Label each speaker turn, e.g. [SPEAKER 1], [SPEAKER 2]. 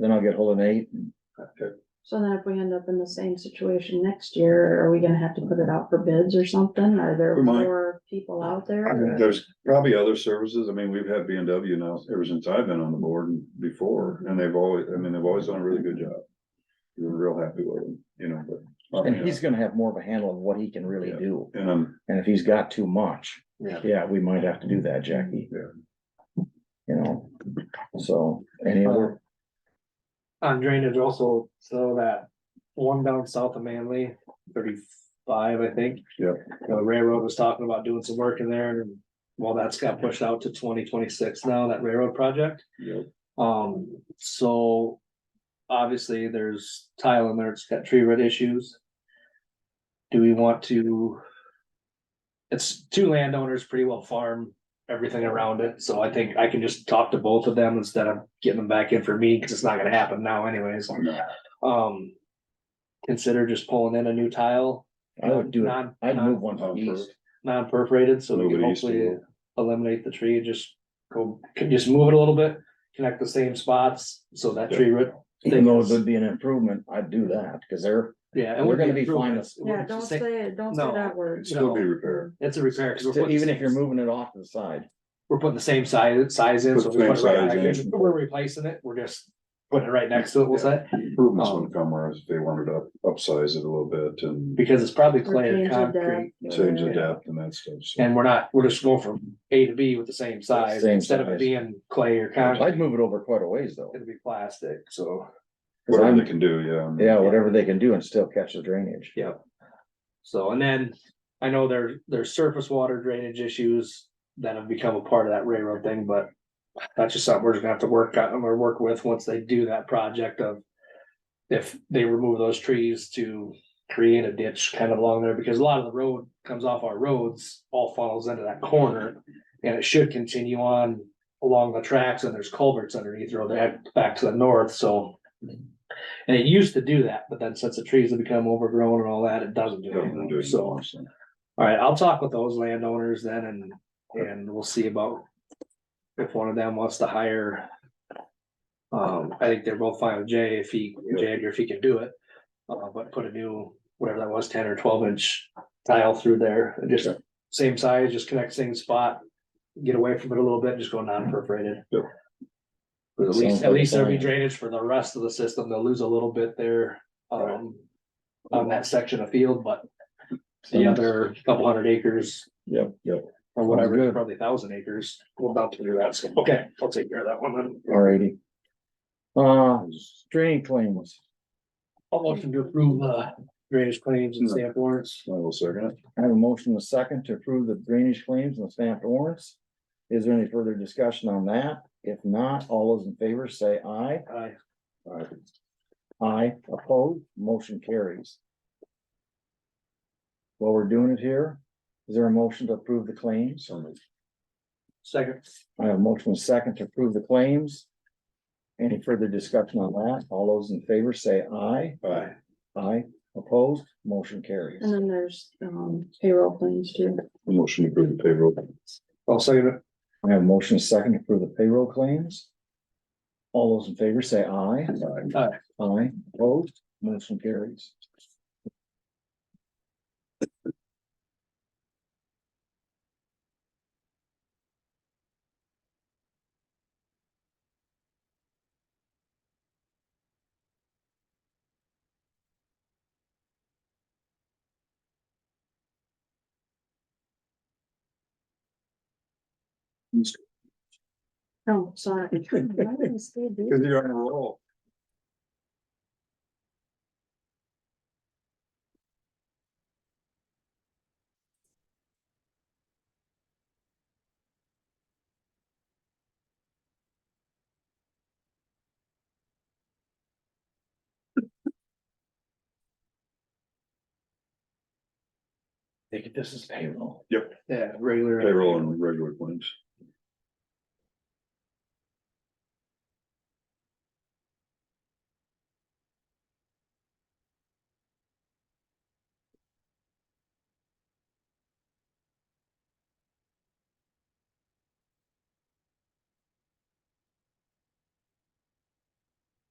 [SPEAKER 1] then I'll get hold of Nate. and-
[SPEAKER 2] Okay.
[SPEAKER 3] So then if we end up in the same situation next year, are we gonna have to put it out for bids or something? Are there
[SPEAKER 2] We might.
[SPEAKER 3] more people out
[SPEAKER 2] I mean,
[SPEAKER 3] there?
[SPEAKER 2] There's probably other services. I mean, we've had B and W now ever since I've been on the board and before, and they've always, I mean, they've always done a really good job. We're real happy with them, you know, but.
[SPEAKER 1] And he's gonna have more of a handle on what he can really
[SPEAKER 2] Yeah.
[SPEAKER 1] do.
[SPEAKER 2] And I'm,
[SPEAKER 1] And if he's got too much,
[SPEAKER 2] Yeah.
[SPEAKER 1] yeah, we might have to do that, Jackie.
[SPEAKER 2] Yeah.
[SPEAKER 1] You know, so any other,
[SPEAKER 4] On drainage also, so that one down south of Manly, thirty-five, I think.
[SPEAKER 2] Yep.
[SPEAKER 4] The railroad was talking about doing some work in there and, well, that's got pushed out to twenty twenty-six now, that railroad project.
[SPEAKER 2] yeah,
[SPEAKER 4] Um, so obviously there's tile in there, it's got tree root issues. Do we want to? It's two landowners pretty well farm everything around it, so I think I can just talk to both of them instead of getting them back in for me, cause it's not gonna happen now anyways. Um, consider just pulling in a new tile.
[SPEAKER 1] I would do it,
[SPEAKER 4] Non,
[SPEAKER 1] I'd move
[SPEAKER 4] non,
[SPEAKER 1] one to the east.
[SPEAKER 4] non perforated, so we
[SPEAKER 2] Move
[SPEAKER 4] can
[SPEAKER 2] it east a
[SPEAKER 4] hopefully
[SPEAKER 2] little.
[SPEAKER 4] eliminate the tree, just go, can just move it a little bit. Connect the same spots, so that tree root
[SPEAKER 1] Even though it would be an improvement, I'd do that, cause they're,
[SPEAKER 4] Yeah.
[SPEAKER 1] They're gonna be fine as-
[SPEAKER 3] Yeah, don't say it, don't say
[SPEAKER 4] No.
[SPEAKER 3] that word.
[SPEAKER 2] it'd still be repaired.
[SPEAKER 4] It's a repair, because we're putting.
[SPEAKER 1] even
[SPEAKER 4] the
[SPEAKER 1] if you're
[SPEAKER 4] same-
[SPEAKER 1] moving it off to the side.
[SPEAKER 4] We're putting the same size, size in,
[SPEAKER 2] Put
[SPEAKER 4] so
[SPEAKER 2] the
[SPEAKER 4] we
[SPEAKER 2] same
[SPEAKER 4] put it right
[SPEAKER 2] size
[SPEAKER 4] back in.
[SPEAKER 2] in.
[SPEAKER 4] we're replacing it, we're just putting it right next to it, we'll say,
[SPEAKER 2] Improvements would come where if they wanted to up- upsize it a little bit and
[SPEAKER 4] because it's probably
[SPEAKER 3] Or
[SPEAKER 4] clay or
[SPEAKER 3] change the
[SPEAKER 4] concrete.
[SPEAKER 3] depth or-
[SPEAKER 2] change the depth and that stuff. so.
[SPEAKER 4] And we're not, we're just going from A to B with the same size,
[SPEAKER 1] Same
[SPEAKER 4] instead of
[SPEAKER 1] size.
[SPEAKER 4] it being clay or concrete,
[SPEAKER 1] I'd move it over quite a ways though.
[SPEAKER 4] it'll be plastic, so.
[SPEAKER 1] Cause
[SPEAKER 2] Whatever
[SPEAKER 1] I'm,
[SPEAKER 2] they can do, yeah. I mean,
[SPEAKER 1] yeah, whatever they can do and still catch the drainage.
[SPEAKER 4] Yep. So, and then I know there, there's surface water drainage issues that have become a part of that railroad thing, but. That's just something we're just gonna have to work on or work with once they do that project of. If they remove those trees to create a ditch kind of along there, because a lot of the road comes off our roads, all funnels into that corner. And it should continue on along the tracks and there's culverts underneath or that back to the north, so. And it used to do that, but then since the trees have become overgrown and all that, it doesn't do
[SPEAKER 2] Doesn't do
[SPEAKER 4] anything,
[SPEAKER 2] it
[SPEAKER 4] so.
[SPEAKER 2] anymore, so.
[SPEAKER 4] All right, I'll talk with those landowners then and, and we'll see about if one of them wants to hire. Um, I think they're both fine with Jay if he, Jagger, if he can do it. Uh, but put a new, whatever that was, ten or twelve inch tile through there, and just same size, just connect same spot. Get away from it a little bit, just go non-perforated.
[SPEAKER 2] Yep.
[SPEAKER 4] But at
[SPEAKER 1] Sounds
[SPEAKER 4] least,
[SPEAKER 1] like
[SPEAKER 4] at
[SPEAKER 1] a
[SPEAKER 4] least there'll be
[SPEAKER 1] plan.
[SPEAKER 4] drainage for the rest of the system. They'll lose a little bit there, um, on that section of field, but the other couple hundred acres
[SPEAKER 1] Yep, yep.
[SPEAKER 4] or
[SPEAKER 1] Sounds
[SPEAKER 4] whatever,
[SPEAKER 1] good.
[SPEAKER 4] probably thousand acres. We're about to do that, so, okay, I'll take care of that one then.
[SPEAKER 1] Alrighty. Uh, drain claims.
[SPEAKER 4] I'll motion to approve, uh, drainage claims and stamp warrants.
[SPEAKER 2] I will second it.
[SPEAKER 1] I have a motion and a second to approve the drainage claims and the stamped warrants. Is there any further discussion on that? If not, all those in favor say aye.
[SPEAKER 4] Aye.
[SPEAKER 1] Aye, opposed, motion carries. While we're doing it here, is there a motion to approve the claims?
[SPEAKER 2] So moved.
[SPEAKER 4] second,
[SPEAKER 1] I have a motion and a second to approve the claims. Any further discussion on that? All those in favor say aye.
[SPEAKER 2] Aye.
[SPEAKER 1] Aye, opposed, motion carries.
[SPEAKER 3] And then there's, um, payroll claims too.
[SPEAKER 2] Motion to approve the payroll.
[SPEAKER 4] I'll second it.
[SPEAKER 1] I have a motion and a second to approve the payroll claims. All those in favor say aye.
[SPEAKER 2] Aye.
[SPEAKER 1] Aye, opposed, motion carries.
[SPEAKER 3] Oh, sorry. Why did I say that?
[SPEAKER 2] Cause you're on a roll.
[SPEAKER 1] Think this is payroll.
[SPEAKER 4] Yeah, regular. uh,
[SPEAKER 2] Payroll and regular claims.